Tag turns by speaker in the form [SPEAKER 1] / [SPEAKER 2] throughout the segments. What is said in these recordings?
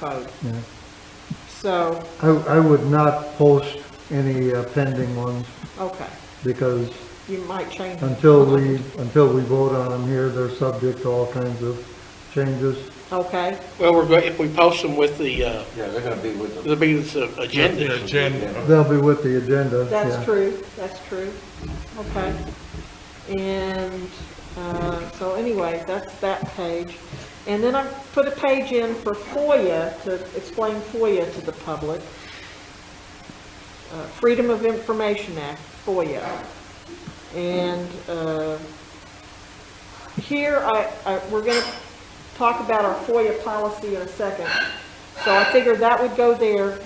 [SPEAKER 1] vote.
[SPEAKER 2] Yeah.
[SPEAKER 1] So,
[SPEAKER 2] I, I would not post any uh, pending ones
[SPEAKER 1] okay,
[SPEAKER 2] because
[SPEAKER 1] you might change.
[SPEAKER 2] until we, until we vote on them here, they're subject to all kinds of changes.
[SPEAKER 1] Okay,
[SPEAKER 3] Well, we're, going if we post them with the, uh,
[SPEAKER 4] Yeah, they're gonna be with the.
[SPEAKER 3] the meeting's agenda.
[SPEAKER 2] They'll be with the agenda.
[SPEAKER 1] that's
[SPEAKER 2] yeah.
[SPEAKER 1] true, that's true, okay. And, uh, so anyway, that's that page. And then I put a page in for FOIA, to explain FOIA to the public. Uh, Freedom of Information Act, FOIA. And, uh, here, I, I, we're gonna talk about our FOIA policy in a second. So I figured that would go there.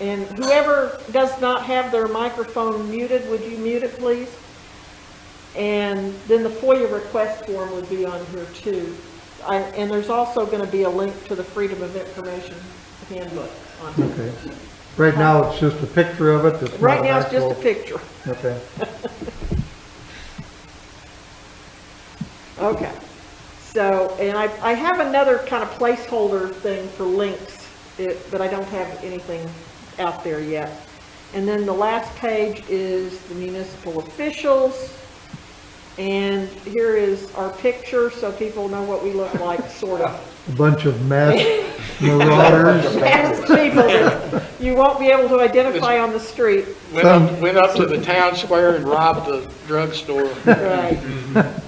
[SPEAKER 1] And whoever does not have their microphone muted, would you mute it, please? And then the FOIA request form would be on here too. I, and there's also gonna be a link to the Freedom of Information handbook on here.
[SPEAKER 2] Okay. Right now, it's just a picture of it. It's
[SPEAKER 1] Right
[SPEAKER 2] not
[SPEAKER 1] now, it's just a
[SPEAKER 2] actual-
[SPEAKER 1] picture.
[SPEAKER 2] Okay.
[SPEAKER 1] Okay, so, and I, I have another kind of placeholder thing for links, it- but I don't have anything out there yet. And then the last page is the municipal officials, and here is our picture, so people know what we look like, sort of.
[SPEAKER 2] A bunch of masked marauders.
[SPEAKER 1] Past people that you won't be able to identify on the street,
[SPEAKER 3] Went up, went up to the town square and robbed the drugstore.
[SPEAKER 1] right?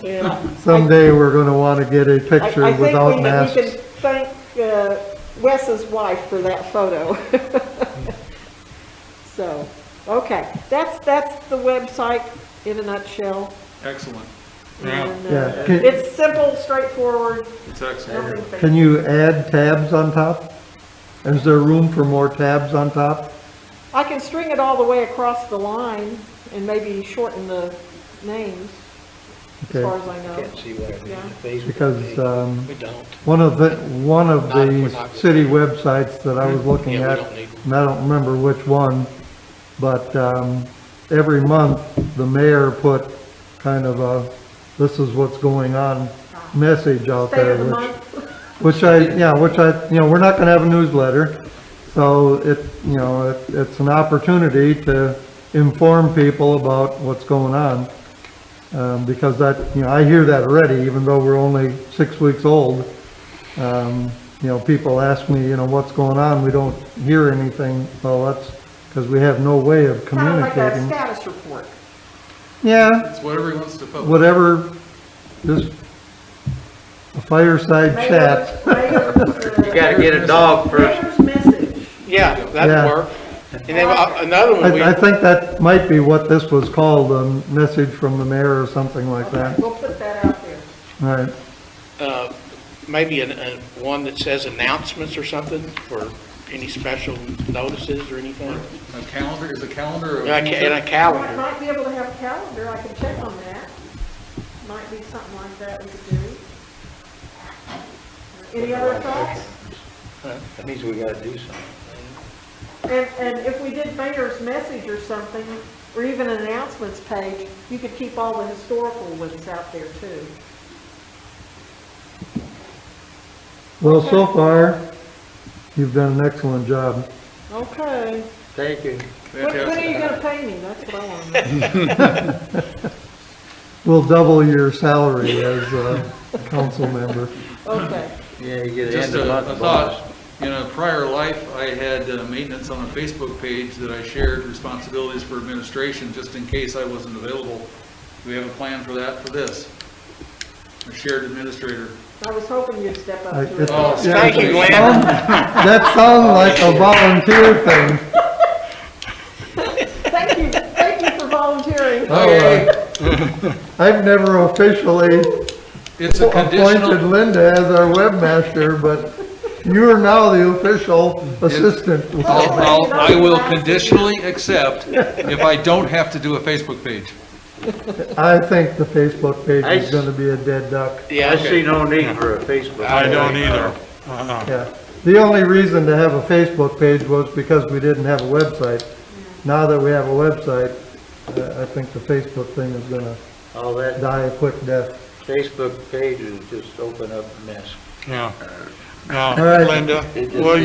[SPEAKER 1] Yeah.
[SPEAKER 2] Someday, we're going to want to get a
[SPEAKER 1] I-
[SPEAKER 2] picture
[SPEAKER 1] I
[SPEAKER 2] without
[SPEAKER 1] think we- we
[SPEAKER 2] masks.
[SPEAKER 1] can thank uh, Wes's wife for that photo. So, okay, that's, that's the website in a nutshell.
[SPEAKER 5] Excellent. Yeah,
[SPEAKER 1] And,
[SPEAKER 2] Yeah.
[SPEAKER 1] uh,
[SPEAKER 2] Can-
[SPEAKER 1] It's simple, straightforward,
[SPEAKER 5] it's
[SPEAKER 1] nothing
[SPEAKER 5] excellent.
[SPEAKER 2] Can
[SPEAKER 1] fancy.
[SPEAKER 2] you add tabs on top? Is there room for more tabs on top?
[SPEAKER 1] I can string it all the way across the line and maybe shorten the names, as far
[SPEAKER 2] Okay.
[SPEAKER 1] as I know.
[SPEAKER 3] Can't see what I mean, if these-
[SPEAKER 2] Because, um,
[SPEAKER 3] We don't.
[SPEAKER 2] One of the, one of
[SPEAKER 3] Not- we're
[SPEAKER 2] the
[SPEAKER 3] not-
[SPEAKER 2] city websites that I was looking
[SPEAKER 3] Yeah, we
[SPEAKER 2] at,
[SPEAKER 3] don't need them.
[SPEAKER 2] and I don't remember which one, but, um, every month, the mayor put kind of a, this is what's going on message out
[SPEAKER 1] Ah. State
[SPEAKER 2] there,
[SPEAKER 1] of the
[SPEAKER 2] which,
[SPEAKER 1] month,
[SPEAKER 2] which I, yeah, which I, you know, we're not gonna have a newsletter, so it, you know, it, it's an opportunity to inform people about what's going on. Um, because that, you know, I hear that already, even though we're only six weeks old. Um, you know, people ask me, you know, what's going on, we don't hear anything, well, that's, because we have no way of
[SPEAKER 1] kind of like a
[SPEAKER 2] communicating.
[SPEAKER 1] status report.
[SPEAKER 2] Yeah,
[SPEAKER 5] It's whatever he wants to publish.
[SPEAKER 2] whatever, just a fireside
[SPEAKER 1] Mayor's-
[SPEAKER 2] chat.
[SPEAKER 1] mayor's, uh,
[SPEAKER 6] You gotta get a dog first.
[SPEAKER 1] Mayor's message.
[SPEAKER 3] Yeah,
[SPEAKER 2] Yeah.
[SPEAKER 3] that'd work. And then uh, another one, we,
[SPEAKER 2] I, I think that might be what this was called, a message from the mayor or something like
[SPEAKER 1] Okay,
[SPEAKER 2] that.
[SPEAKER 1] We'll put that out there.
[SPEAKER 2] All right,
[SPEAKER 3] uh, maybe an, a, one that says announcements or something, or any special notices or anything.
[SPEAKER 5] A calendar, is a calendar of.
[SPEAKER 3] And a ca- and a
[SPEAKER 1] Well, I
[SPEAKER 3] calendar.
[SPEAKER 1] might be able to have a calendar, I can check on that. Might be something like that we could do. Any other thoughts?
[SPEAKER 4] That means we gotta do something.
[SPEAKER 1] And, and if we did mayor's message or something, or even an announcements page, you could keep all the historical ones out there too.
[SPEAKER 2] well, so far, you've done an excellent job.
[SPEAKER 1] Okay.
[SPEAKER 4] Thank you.
[SPEAKER 1] When, when are
[SPEAKER 5] Fantastic.
[SPEAKER 1] you gonna pay me? That's what I want to know.
[SPEAKER 2] We'll double your salary as a council member.
[SPEAKER 1] Okay.
[SPEAKER 4] Yeah, you get an
[SPEAKER 5] Just
[SPEAKER 4] end of
[SPEAKER 5] a, a
[SPEAKER 4] month bonus.
[SPEAKER 5] thought, in a prior life, I had uh, maintenance on a Facebook page that I shared responsibilities for administration, just in case I wasn't available. Do we have a plan for that, for this? A shared administrator.
[SPEAKER 1] I was hoping you'd step
[SPEAKER 2] I-
[SPEAKER 1] up to
[SPEAKER 2] it-
[SPEAKER 1] it.
[SPEAKER 5] Oh,
[SPEAKER 2] yeah, Um,
[SPEAKER 3] Thank you,
[SPEAKER 2] it
[SPEAKER 3] Glenn.
[SPEAKER 2] sound- That sounds like a volunteer thing.
[SPEAKER 1] Thank you, thank you for volunteering.
[SPEAKER 2] Oh, uh, I've never officially
[SPEAKER 5] It's a
[SPEAKER 2] appointed
[SPEAKER 5] conditional,
[SPEAKER 2] Linda as our webmaster, but you are now the official assistant.
[SPEAKER 5] I'll- I'll- I will conditionally accept if I don't have to do a Facebook page.
[SPEAKER 2] I think the Facebook page is gonna be a dead duck.
[SPEAKER 3] Yeah,
[SPEAKER 4] I see no need for a Facebook.
[SPEAKER 7] I don't either.
[SPEAKER 2] Yeah, the only reason to have a Facebook page was because we didn't have a website. Now that we have a website, uh, I think the Facebook thing is gonna
[SPEAKER 4] All that
[SPEAKER 2] die a quick death.
[SPEAKER 4] Facebook page is just open up a mess.
[SPEAKER 7] Yeah.
[SPEAKER 2] right.
[SPEAKER 7] Now, Linda,
[SPEAKER 4] It just-
[SPEAKER 7] will you